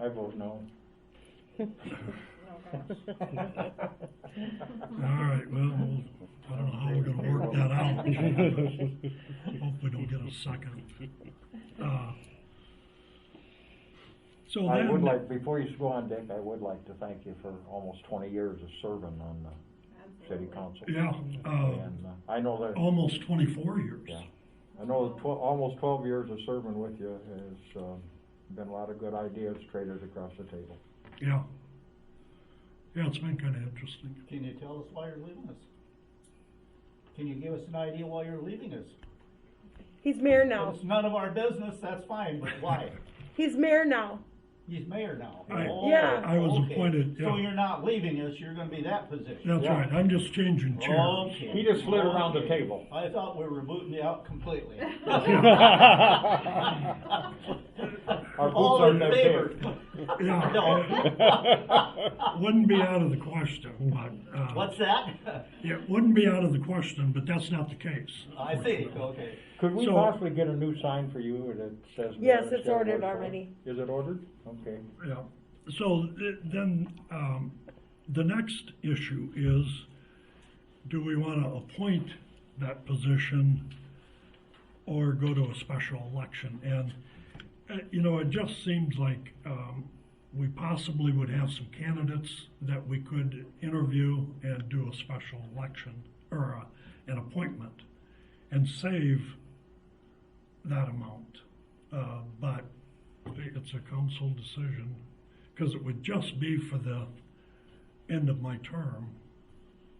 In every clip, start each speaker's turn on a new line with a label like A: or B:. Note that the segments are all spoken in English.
A: I vote no.
B: All right, well, we'll- I don't know how we're gonna work that out. Hopefully don't get a second. Uh, So
A: I would
B: then,
A: like, before you go on, Dick, I would like to thank you for almost twenty years of serving on the city council.
B: yeah, uh,
A: And uh, I know that,
B: almost twenty-four years.
A: yeah, I know tw- almost twelve years of serving with you has, um, been a lot of good ideas traded across the table.
B: Yeah. Yeah, it's been kinda interesting.
C: Can you tell us why you're leaving us? Can you give us an idea why you're leaving us?
D: He's mayor
C: If
D: now.
C: It's none of our business, that's fine, but why?
D: He's mayor now.
C: He's mayor now.
B: I-
C: Oh,
D: Yeah.
B: I was
C: okay.
B: appointed,
C: So
B: yeah.
C: you're not leaving us, you're gonna be that position?
B: That's
A: Yeah.
B: right, I'm just changing chairs.
C: Okay.
A: He just slid around the
C: Okay.
A: table.
C: I thought we were booting you out completely.
A: Our
C: All
A: boots
C: in
A: are
C: favor?
B: Yeah.
C: No.
B: Wouldn't be out of the question, but, uh.
C: What's that?
B: Yeah, It wouldn't be out of the question, but that's not the case.
C: I see, okay.
A: Could we
B: So-
A: possibly get a new sign for you that says?
D: Yes,
A: Mayor
D: it's
A: Shelley
D: ordered
A: Ward Ford?
D: already.
A: Is it ordered? Okay.
B: Yeah, so th- then, um, the next issue is, do we wanna appoint that position or go to a special election? And, uh, you know, it just seems like, um, we possibly would have some candidates that we could interview and do a special election or a, an appointment and save that amount. Uh, but it's a council decision, because it would just be for the end of my term,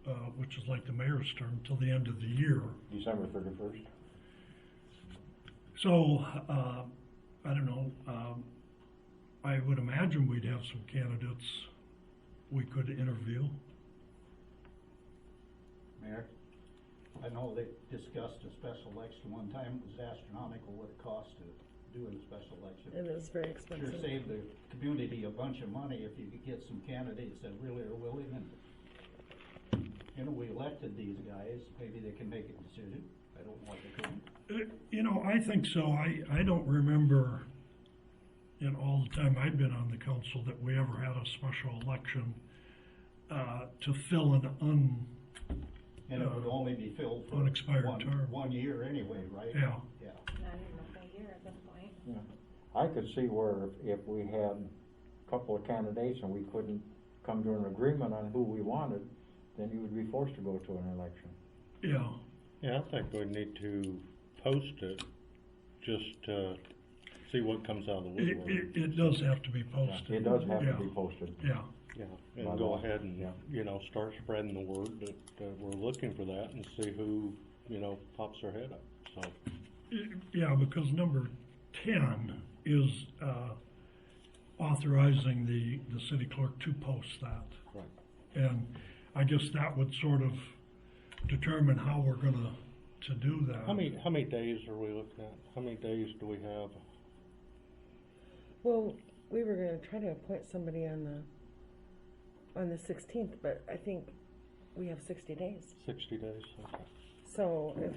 B: uh, which is like the mayor's term, till the end of the year.
A: December thirty-first.
B: So, uh, I don't know, um, I would imagine we'd have some candidates we could interview.
C: Mayor, I know they discussed a special election one time, it was astronomical what it cost to do in a special
D: It
C: election.
D: is very
C: Sure
D: expensive.
C: save the community a bunch of money if you could get some candidates that really are willing and, you know, we elected these guys, maybe they can make a decision, I don't want to come.
B: Uh, You know, I think so. I, I don't remember in all the time I've been on the council that we ever had a special election uh, to fill an un,
C: And it would only be filled for
B: An expired
C: one,
B: Uh, term.
C: one year anyway, right?
B: yeah.
C: Yeah,
E: Not even a full year at this point.
A: I could see where if if we had a couple of candidates and we couldn't come to an agreement on who we wanted, then you would be forced to go to an election.
B: Yeah,
F: Yeah, I think we need to post it, just, uh, see what comes out of the
B: it,
F: woodwork.
B: it, it does have to be posted.
A: It does have to be
B: Yeah,
A: posted.
B: Yeah,
F: Yeah,
A: By
F: and go
A: law,
F: ahead and,
A: yeah.
F: you know, start spreading the word that, uh, we're looking for that and see who, you know, pops their head up, so.
B: It- yeah, because number ten is uh, authorizing the, the city clerk to post that.
F: Right.
B: And I guess that would sort of determine how we're gonna, to do that.
F: How many, how many days are we looking at? How many days do we have?
D: Well, we were gonna try to appoint somebody on the, on the sixteenth, but I think we have sixty days.
F: Sixty days? Okay.
D: So if,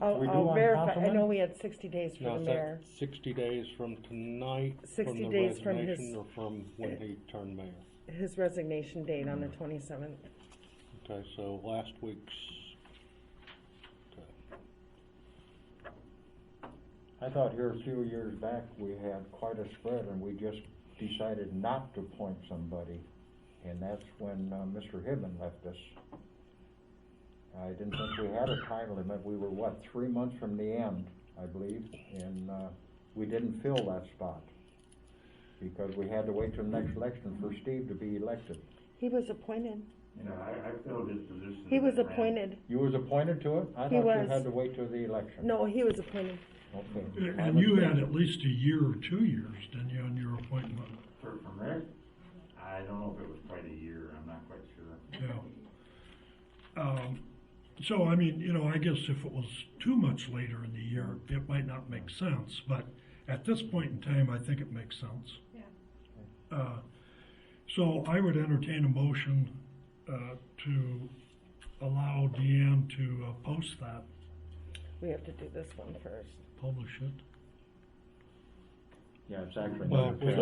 D: I'll,
A: We do
D: I'll
A: want
D: verify, I
A: councilmen?
D: know we had sixty days
F: Now,
D: for the
F: is that
D: mayor.
F: sixty days from tonight, from
D: 60
F: the
D: days from his-
F: resignation, or from when he turned mayor?
D: His resignation date on the twenty-seventh.
F: Okay, so last week's, okay.
A: I thought here a few years back, we had quite a spread and we just decided not to appoint somebody. And that's when, uh, Mr. Hibben left us. I didn't think we had a time limit. We were, what, three months from the end, I believe, and, uh, we didn't fill that spot. Because we had to wait till the next election for Steve to be elected.
D: He was appointed.
G: You know, I, I filled his position.
D: He was
G: as a
D: appointed.
A: You was appointed to it? I
D: He
A: thought you
D: was.
A: had to wait till the election.
D: No, he was appointed.
A: Okay.
B: And you had at least a year or two years, didn't you, on your appointment?
G: For, for mayor, I don't know if it was quite a year, I'm not quite sure.
B: Yeah. Um, so, I mean, you know, I guess if it was too much later in the year, it might not make sense, but at this point in time, I think it makes sense.
E: Yeah.
B: Uh, so I would entertain a motion, uh, to allow Deanne to uh, post that,
D: We have to do this one first.
B: publish it.
A: Yeah, exactly.
F: Well, we